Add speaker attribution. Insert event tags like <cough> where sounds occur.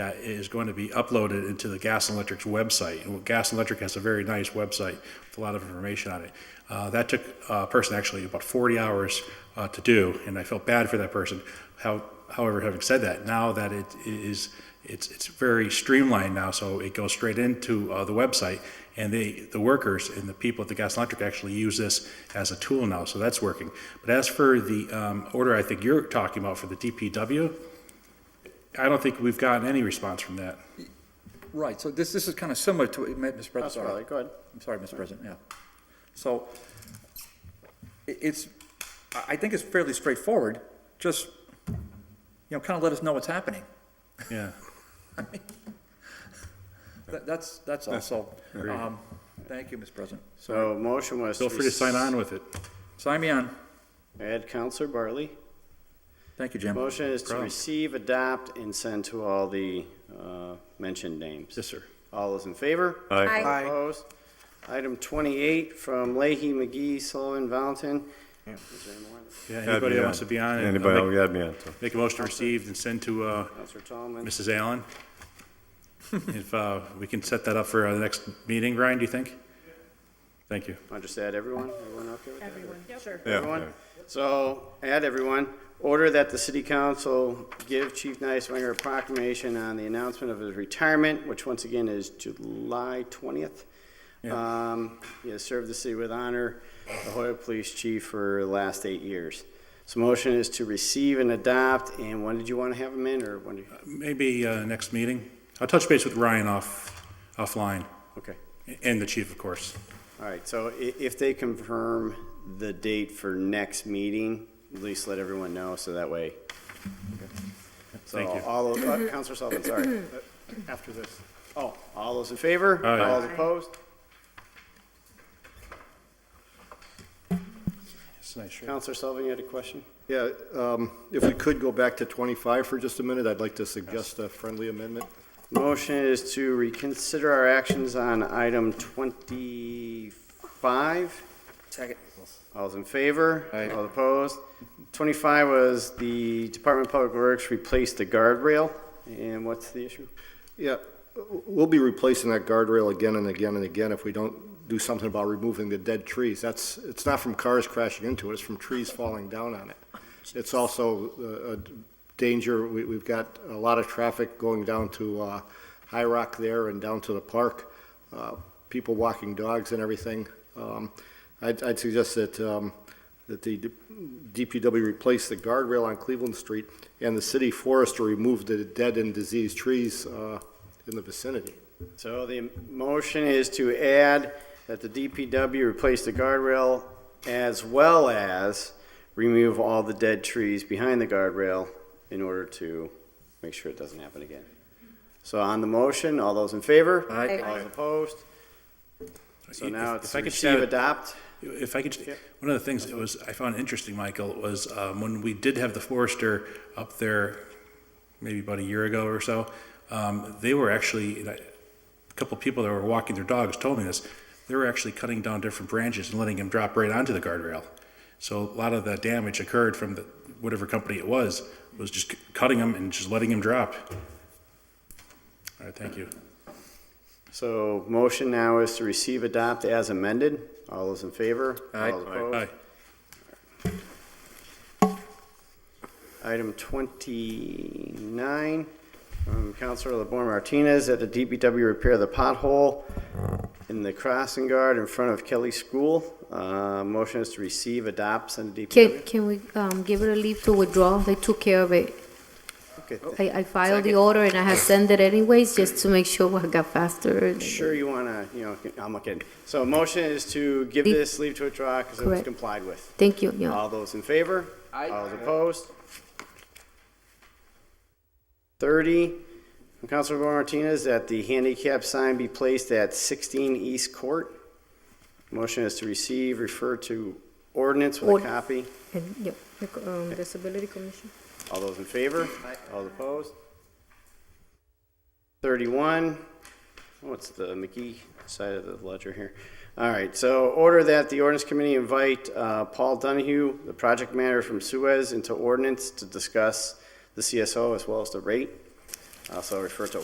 Speaker 1: that is going to be uploaded into the Gas and Electric's website. And Gas and Electric has a very nice website with a lot of information on it. Uh, That took uh, a person actually about 40 hours uh, to do, and I felt bad for that person. How- However, having said that, now that it is, it's, it's very streamlined now, so it goes straight into uh, the website, and they, the workers and the people at the Gas and Electric actually use this as a tool now, so that's working. But as for the um, order I think you're talking about for the DPW, I don't think we've gotten any response from that.
Speaker 2: Right, so this, this is kind of similar to, it may- Mr. President,
Speaker 3: That's
Speaker 2: sorry.
Speaker 3: probably good.
Speaker 2: I'm sorry, Mr. President, yeah. So i- it's, I I think it's fairly straightforward, just, you know, kind of let us know what's happening.
Speaker 1: Yeah.
Speaker 2: That- That's, that's all, so, um, thank you, Mr. President. So,
Speaker 3: So motion was.
Speaker 1: Feel free to sign on with it.
Speaker 2: sign me on.
Speaker 3: Add Counselor Bartley.
Speaker 2: Thank you, Jim.
Speaker 3: Motion is to
Speaker 1: Problem.
Speaker 3: receive, adopt, and send to all the uh, mentioned names.
Speaker 1: Yes, sir.
Speaker 3: All those in favor?
Speaker 4: Aye. Aye.
Speaker 3: Opposed? Item 28 from Leahy, McGee, Sullivan, Valentin.
Speaker 1: Yeah,
Speaker 4: Add
Speaker 1: anybody
Speaker 4: me
Speaker 1: that
Speaker 4: on.
Speaker 1: wants to be on it? uh,
Speaker 4: Anybody,
Speaker 1: make-
Speaker 4: oh, add me on, so.
Speaker 1: Make a motion to receive and send to uh,
Speaker 3: Counselor Tomlin.
Speaker 1: Mrs. <laughs> Allen. If uh, we can set that up for uh, the next meeting, Ryan, do you think? Thank you.
Speaker 3: I'll just add everyone. Everyone okay with that?
Speaker 4: Everyone,
Speaker 5: sure.
Speaker 4: Yeah,
Speaker 3: Everyone? So add everyone. Order that the city council give Chief Nyswanger a proclamation on the announcement of his retirement, which once again is July 20th. Um, He has served the city with honor, the Hoyok Police Chief for the last eight years. So motion is to receive and adopt, and when did you want to have him in, or when do you,
Speaker 1: Maybe uh, next meeting. I'll touch base with Ryan off, offline,
Speaker 3: okay.
Speaker 1: and the chief, of course.
Speaker 3: All right, so i- if they confirm the date for next meeting, at least let everyone know, so that way. So
Speaker 1: Thank you.
Speaker 3: all, of- uh, Counselor Sullivan, sorry.
Speaker 6: after this.
Speaker 3: Oh, all those in favor?
Speaker 1: Aye.
Speaker 3: All those opposed?
Speaker 1: It's a nice shirt.
Speaker 3: Counselor Sullivan, you had a question?
Speaker 6: Yeah, um, if we could go back to 25 for just a minute, I'd like to suggest a friendly amendment.
Speaker 3: Motion is to reconsider our actions on item twenty-five.
Speaker 2: Second.
Speaker 3: All those in favor?
Speaker 6: Aye.
Speaker 3: All opposed? Twenty-five was the Department of Public Works replaced the guardrail, and what's the issue?
Speaker 6: Yeah, w- we'll be replacing that guardrail again and again and again if we don't do something about removing the dead trees. That's, it's not from cars crashing into it, it's from trees falling down on it. It's also uh, a danger, we, we've got a lot of traffic going down to uh, High Rock there and down to the park, uh, people walking dogs and everything. Um, I'd, I'd suggest that, um, that the DPW replace the guardrail on Cleveland Street and the city forester remove the dead and diseased trees uh, in the vicinity.
Speaker 3: So the motion is to add that the DPW replace the guardrail as well as remove all the dead trees behind the guardrail in order to make sure it doesn't happen again. So on the motion, all those in favor?
Speaker 2: Aye.
Speaker 3: All those opposed? So
Speaker 1: If-
Speaker 3: now
Speaker 1: if
Speaker 3: it's
Speaker 1: I could shout
Speaker 3: receive,
Speaker 1: it-
Speaker 3: adopt.
Speaker 1: If I could, just- one of the things that was, I found interesting, Michael, was um, when we did have the forester up there, maybe about a year ago or so, um, they were actually, and I- a couple people that were walking their dogs told me this, they were actually cutting down different branches and letting them drop right onto the guardrail. So a lot of the damage occurred from the, whatever company it was, was just c- cutting them and just letting them drop. All right, thank you.
Speaker 3: So motion now is to receive, adopt as amended. All those in favor?
Speaker 2: Aye.
Speaker 3: All opposed?
Speaker 1: Aye.
Speaker 3: Item 29, from um, Counselor LeBoer Martinez, that the DPW repair the pothole in the crossing guard in front of Kelly School. Uh, Motion is to receive, adopt, send to
Speaker 4: Can,
Speaker 3: DPW.
Speaker 4: can we um, give it a leave to withdraw? They took care of it.
Speaker 3: Okay, th-
Speaker 4: I, I filed the
Speaker 3: Second.
Speaker 4: order and I have sent it anyways, just to make sure I got faster.
Speaker 3: Sure you want to, you know, I'm looking. So motion is to give
Speaker 4: Leave-
Speaker 3: this leave to withdraw because it was
Speaker 4: Correct.
Speaker 3: complied with.
Speaker 4: Thank you, yeah.
Speaker 3: All those in favor? Aye. All those opposed? 30, from Counselor LeBoer Martinez, that the handicap sign be placed at 16 East Court. Motion is to receive, refer to ordinance with
Speaker 4: Ord-
Speaker 3: a copy.
Speaker 4: And, yeah, the co- um, Disability Commission.
Speaker 3: All those in favor? All opposed? 31, what's the McGee side of the ledger here? All right, so order that the ordinance committee invite uh, Paul Donahue, the project manager from Suez, into ordinance to discuss the CSO as well as the rate. Also refer to